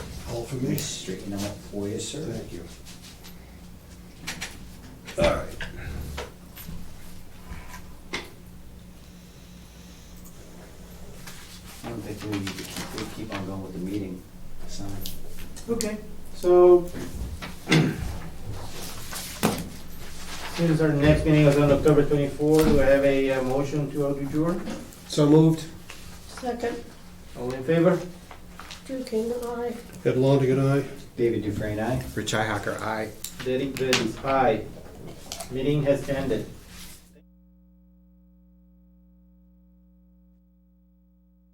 for me? Straighten out for you, sir. Thank you. All right. I don't think we need to keep, we keep on going with the meeting, so. Okay, so. Since our next meeting is on October twenty-four, do I have a uh, motion to adjourn? So moved. Second, All in favor? Drew King and I. Ed Longigan, aye. David Dufresne, aye? Richi Hacker, aye. Derek Bellis, aye. Meeting has ended.